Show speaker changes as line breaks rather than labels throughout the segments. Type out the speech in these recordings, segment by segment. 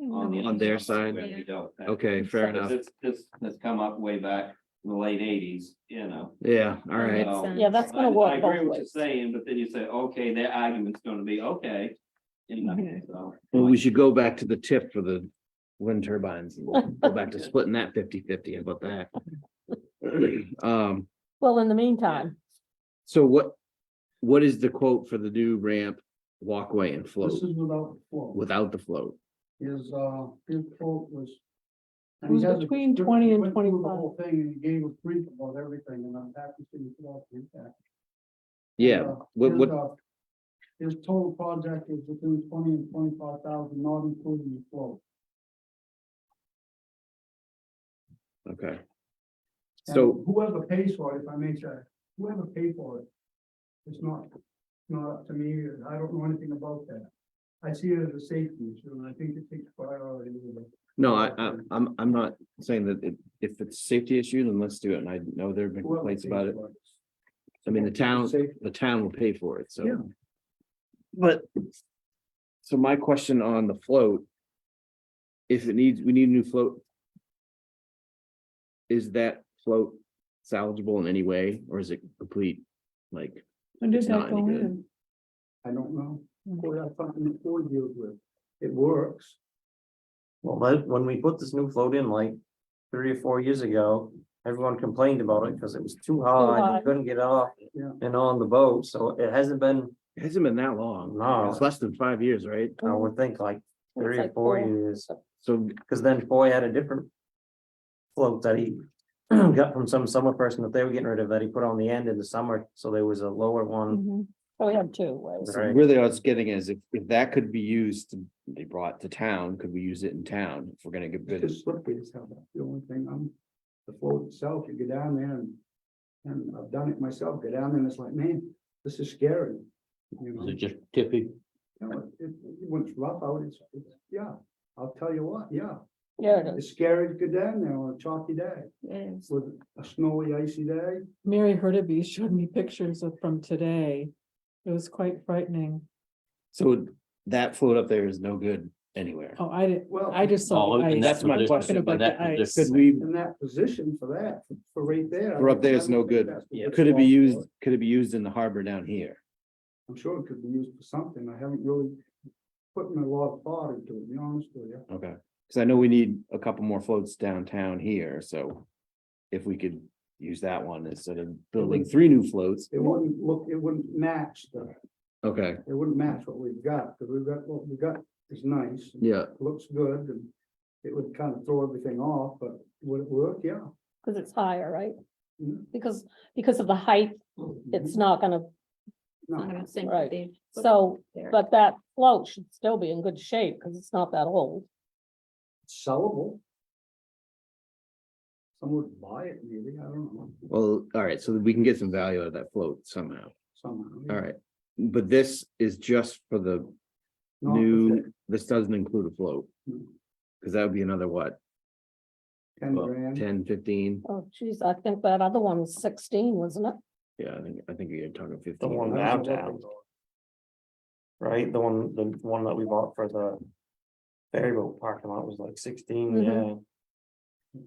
on,
Mm-hmm.
on their side?
We don't.
Okay, fair enough.
This, this has come up way back in the late eighties, you know.
Yeah, all right.
So,
Yeah, that's gonna
I-
work
I agree
both
what you're
ways.
saying, but then you say, okay, their argument's gonna be, okay. You know,
Mm-hmm.
Mhm.
so.
Well, we should go back to the tip for the wind turbines. and we'll Go back to splitting that 50-50. How about that. Um,
Well, in the meantime,
so what, what is the quote for the new ramp, walkway and
This
float
is without the floor.
without the float?
His, uh, his quote was.
It was
he has a
between
description.
20
He
and
went through the
25.
Whole thing and he gave a brief about everything and I'm happy to see it all in that.
Yeah,
Uh,
what-
his,
what-
uh, His total project is between twenty and twenty-five thousand, not including the float.
okay.
And
So,
Whoever pays for it, if I may say, whoever paid for it, it's not, not up to me, and I don't know anything about that. I see it as a safety issue and I think it takes priority. over
no, I, I, I'm, I'm not saying that if, if it's a safety issue, then let's do it. And I know there've been
whoever
complaints
pays
about it.
for
I mean, the town,
Safety.
the town will pay for it, so.
Yeah.
But. So my question on the float. If it needs, we need a new float. Is that float salvageable in any way, or is it complete? Like,
When did
It's
that
not any
go
good.
in?
I don't know.
Mm-hmm.
Boy, I thought the four deals with, it works.
Well, that, when we put this new float in like three or four years ago, everyone complained about it because it was too high,
high.
you couldn't get off.
Yeah.
And on the boat, so it hasn't been,
it hasn't been that long.
No.
It's less than five years, right?
Oh.
I would think like
It's
three or
like
four
four.
years,
So,
because then Foy had a different. Float that he got from some summer person that they were getting rid of that he put on the end in the summer, so there was a lower one.
mhm. so we have two ways.
so
Right.
really, I was getting is if, if that could be used, they brought to town, could we use it in town? If we're gonna get
It's
bids?
just slippery as hell. That's the only thing. I'm, the float itself, you get down there and, and I've done it myself, get down there and it's like, man, this is scary. You know,
just tippy?
You know, it- it- when it's rough out, it's, it's, yeah, I'll tell you what, yeah.
Yeah, it is.
It's scary to get down there on a chalky day
Yes.
with a snowy, icy day.
Mary Hurtubise showed me pictures of from today. It was quite frightening.
So that float up there is no good anywhere.
Oh, I didn't,
Well,
I just saw.
Oh,
the
and
ice.
That's my question.
About the ice.
Could we,
in that position for that, for right there.
We're up there, it's
I
no
don't think
good.
that's the
Yeah.
best
could it be
spot for
used,
it.
could it be used in the harbor down here?
I'm sure it could be used for something. I haven't really put a lot of thought into it, to be honest with you.
Okay, because I know we need a couple more floats downtown here, so. If we could use that one instead of building three new floats.
It wouldn't look, it wouldn't match the,
Okay,
it wouldn't match what we've got, because we've got, what we've got is nice, and
yeah,
looks good, and it would kind of throw everything off, but would it work? Yeah.
Cause it's higher, right?
Mm-hmm.
Mhm.
Because, because of the height, it's not gonna,
No,
right. so, but that float should still be in good shape, cause it's not that old.
it's sellable. Someone would buy it maybe, I don't know,
well, all right, so we can get some value out of that float somehow,
somehow.
all right. But this is just for the
Not the
new, this doesn't include a float.
No.
Because that would be another what,
Ten grand.
ten, fifteen?
Oh, geez, I think that other one was sixteen, wasn't it?
Yeah, I think, I think you're talking fifteen.
The one
I don't know what
downtown,
they
right? The one, the one that we bought for the. Ferry boat parking lot was like sixteen,
Mhm.
yeah.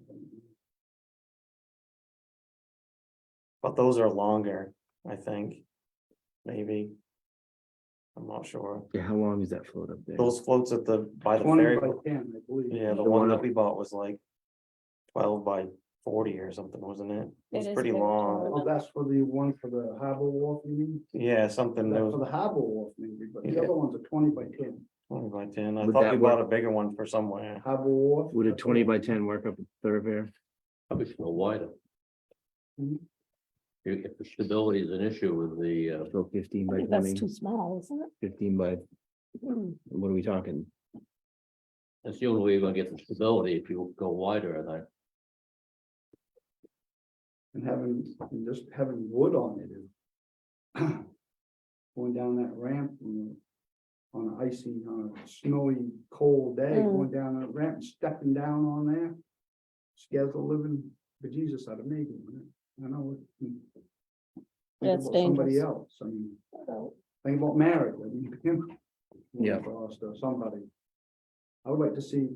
But those are longer, I think. Maybe. I'm not sure.
Yeah, how long is that float up there?
Those floats at the, by the
Twenty
ferry,
by
boat-
ten, I believe.
yeah, the
The one
one that
up-
we bought was like. Twelve by forty or something, wasn't it?
It
It's
is
pretty
very
long.
tall.
Oh, that's for the one for the harbor wharf, you mean?
Yeah, something that
That's
was
for the harbor wharf maybe, but the
Yeah.
other one's a twenty by ten,
twenty by ten. I
Would
thought
that
we bought a bigger one for somewhere.
harbor wharf.
Would a twenty by ten work up at thoroughfare?
Probably should go wider.
Mhm.
If, if the stability is an issue with the, uh,
Go fifteen
I
by
think that's
20,
too small, isn't
15 by,
it?
what are we talking?
that's the only way you're gonna get the stability if you go wider, and I,
And having, and just having wood on it. is- Going down that ramp and on an icy, on a snowy, cold day,
Mm.
going down that ramp, and stepping down on there. Scares the living bejesus out of me, doing it. I know. it- Mm. Think
That's
about Somebody
dangerous. Oh.
else, I mean,
So,
think about marriage, I mean. you know,
Yeah.
Or somebody. uh, I would like to see